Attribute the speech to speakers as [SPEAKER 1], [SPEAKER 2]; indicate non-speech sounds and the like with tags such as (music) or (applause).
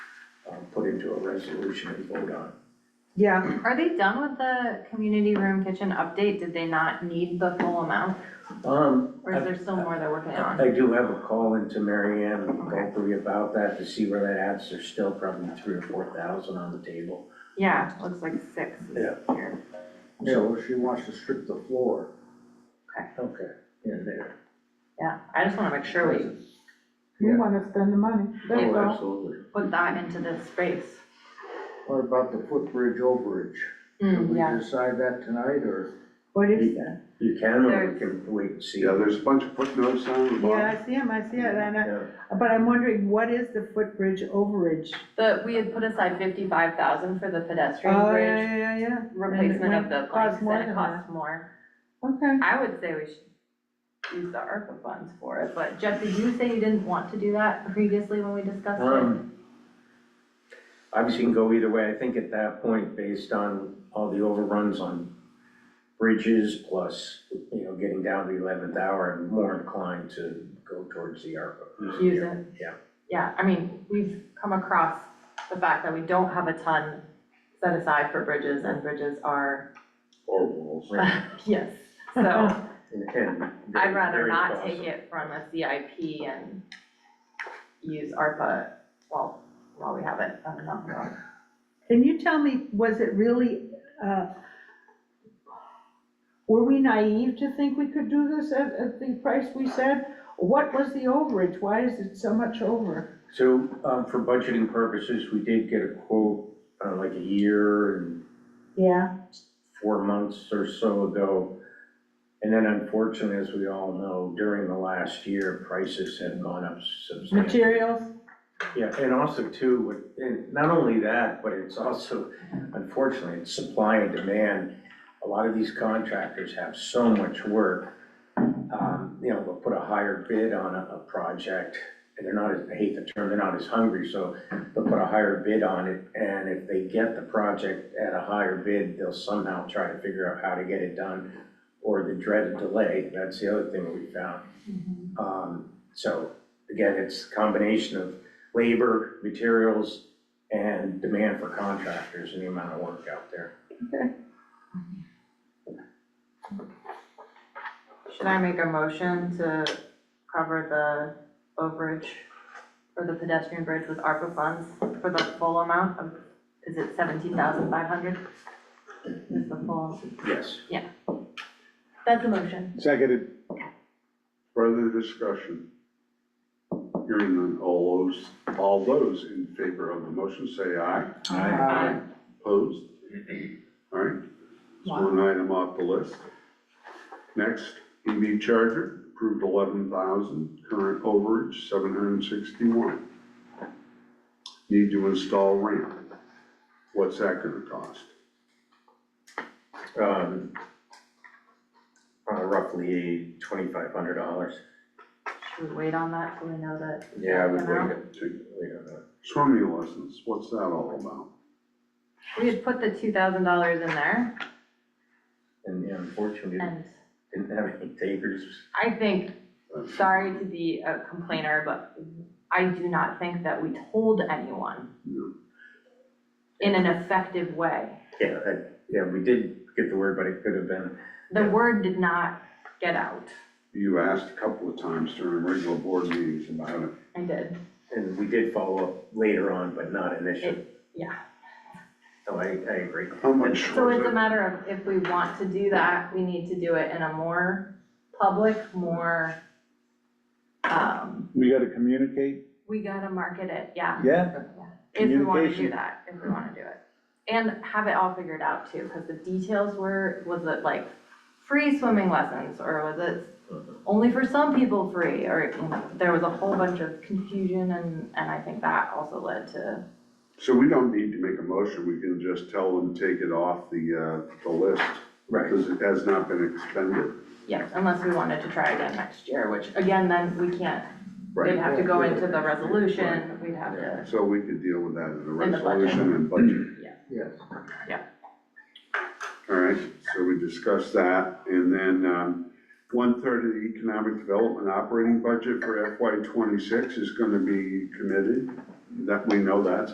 [SPEAKER 1] uh, into a resolution and vote on.
[SPEAKER 2] Yeah,
[SPEAKER 3] Are they done with the community room kitchen update? Did they not need the full amount?
[SPEAKER 1] Um,
[SPEAKER 3] Or is there still more they're working on?
[SPEAKER 1] I do have a call into Mary Ann and Gulfrey about that to see where that adds. There's still probably three or four thousand on the table.
[SPEAKER 3] Yeah, looks like six is
[SPEAKER 1] Yeah.
[SPEAKER 3] here.
[SPEAKER 4] So she wants to strip the floor.
[SPEAKER 1] Okay, in there.
[SPEAKER 3] Yeah, I just wanna make sure we
[SPEAKER 2] we wanna spend the money, that's
[SPEAKER 3] Oh,
[SPEAKER 2] all.
[SPEAKER 1] absolutely.
[SPEAKER 3] put that into this space.
[SPEAKER 4] What about the footbridge overage? Did
[SPEAKER 3] Hmm,
[SPEAKER 4] we
[SPEAKER 3] yeah.
[SPEAKER 4] decide that tonight, or?
[SPEAKER 2] What is that?
[SPEAKER 1] You can, or we can wait and see.
[SPEAKER 5] Yeah, there's a bunch of footnotes on the
[SPEAKER 2] Yeah,
[SPEAKER 5] bottom.
[SPEAKER 2] I see him, I see it, and I,
[SPEAKER 1] Yeah.
[SPEAKER 2] but I'm wondering, what is the footbridge overage?
[SPEAKER 3] But we had put aside fifty-five thousand for the pedestrian
[SPEAKER 2] Oh, yeah,
[SPEAKER 3] bridge
[SPEAKER 2] yeah, yeah, yeah,
[SPEAKER 3] replacement of the
[SPEAKER 2] cost
[SPEAKER 3] bikes
[SPEAKER 2] more
[SPEAKER 3] and
[SPEAKER 2] than
[SPEAKER 3] it costs more.
[SPEAKER 2] okay.
[SPEAKER 3] I would say we should use the ARPA funds for it, but Jeff, did you say you didn't want to do that previously when we discussed it?
[SPEAKER 1] Um, obviously can go either way. I think at that point, based on all the overruns on bridges plus, you know, getting down to the eleventh hour, I'm more inclined to go towards the ARPA.
[SPEAKER 3] Use it.
[SPEAKER 1] Yeah.
[SPEAKER 3] Yeah, I mean, we've come across the fact that we don't have a ton set aside for bridges and bridges are, (laughs)
[SPEAKER 1] Or rules. right?
[SPEAKER 3] yes.
[SPEAKER 1] (laughs)
[SPEAKER 3] So
[SPEAKER 1] And- and
[SPEAKER 3] (laughs) I'd rather
[SPEAKER 1] very
[SPEAKER 3] not take
[SPEAKER 1] costly.
[SPEAKER 3] it from a CIP and use ARPA, well, while we have it. I don't know.
[SPEAKER 2] Can you tell me, was it really, uh, were we naive to think we could do this at, at the price we said? What was the overage? Why is it so much over?
[SPEAKER 1] So, um, for budgeting purposes, we did get a quote, uh, like a year and
[SPEAKER 2] Yeah.
[SPEAKER 1] four months or so ago. And then unfortunately, as we all know, during the last year, prices have gone up substantially.
[SPEAKER 2] Materials?
[SPEAKER 1] Yeah, and also too, with- and not only that, but it's also, unfortunately, it's supply and demand. A lot of these contractors have so much work. Um, you know, they'll put a higher bid on a, a project and they're not, as I hate the term, they're not as hungry, so they'll put a higher bid on it. And if they get the project at a higher bid, they'll somehow try to figure out how to get it done or the dreaded delay. That's the other thing we found. Um, so again, it's a combination of labor, materials, and demand for contractors and the amount of work out there.
[SPEAKER 3] Should I make a motion to cover the overage for the pedestrian bridge with ARPA funds for the full amount of, is it seventeen thousand five hundred? Is the full,
[SPEAKER 1] Yes.
[SPEAKER 3] that's a motion.
[SPEAKER 5] Seconded. Further discussion. Hearing none, all those, all those in favor of the motion, say aye.
[SPEAKER 2] Aye.
[SPEAKER 5] Opposed? All right, it's one item off the list. Next, EV charger, approved eleven thousand, current overage seven hundred and sixty-one. Need to install ramp. What's that gonna cost?
[SPEAKER 1] Um, uh, roughly twenty-five hundred dollars.
[SPEAKER 3] Should we wait on that till we know that?
[SPEAKER 1] Yeah, I would
[SPEAKER 3] amount?
[SPEAKER 1] wait, wait on that.
[SPEAKER 5] Swimming lessons, what's that all about?
[SPEAKER 3] We had put the two thousand dollars in there,
[SPEAKER 1] And yeah, unfortunately,
[SPEAKER 3] and
[SPEAKER 1] didn't have any takers.
[SPEAKER 3] I think, sorry to be a complainer, but I do not think that we told anyone
[SPEAKER 5] No.
[SPEAKER 3] in an effective way.
[SPEAKER 1] Yeah, I- yeah, we did get the word, but it could have been,
[SPEAKER 3] The word did not get out.
[SPEAKER 5] You asked a couple of times during regular board meetings about it.
[SPEAKER 3] I did,
[SPEAKER 1] and we did follow up later on, but not initially.
[SPEAKER 3] yeah.
[SPEAKER 1] No, I, I agree.
[SPEAKER 5] How much
[SPEAKER 3] So
[SPEAKER 5] was
[SPEAKER 3] it's a
[SPEAKER 5] it?
[SPEAKER 3] matter of if we want to do that, we need to do it in a more public, more, um,
[SPEAKER 6] We gotta communicate,
[SPEAKER 3] we gotta market it, yeah.
[SPEAKER 6] yeah?
[SPEAKER 3] If we wanna do
[SPEAKER 6] Communication.
[SPEAKER 3] that, if we wanna do it. And have it all figured out too, cause the details were, was it like free swimming lessons or was it only for some people free or, you know, there was a whole bunch of confusion and, and I think that also led to,
[SPEAKER 5] So we don't need to make a motion, we can just tell them, take it off the, uh, the list,
[SPEAKER 1] Right,
[SPEAKER 5] because it has not been expended.
[SPEAKER 3] yes, unless we wanted to try again next year, which again, then we can't We'd have to go into the resolution, we'd have to,
[SPEAKER 5] So we could deal with that in the
[SPEAKER 3] In the budget.
[SPEAKER 5] resolution and budget.
[SPEAKER 4] Yes.
[SPEAKER 5] All right, so we discussed that, and then, um, one-third of the economic development operating budget for FY twenty-six is gonna be committed, that, we know that,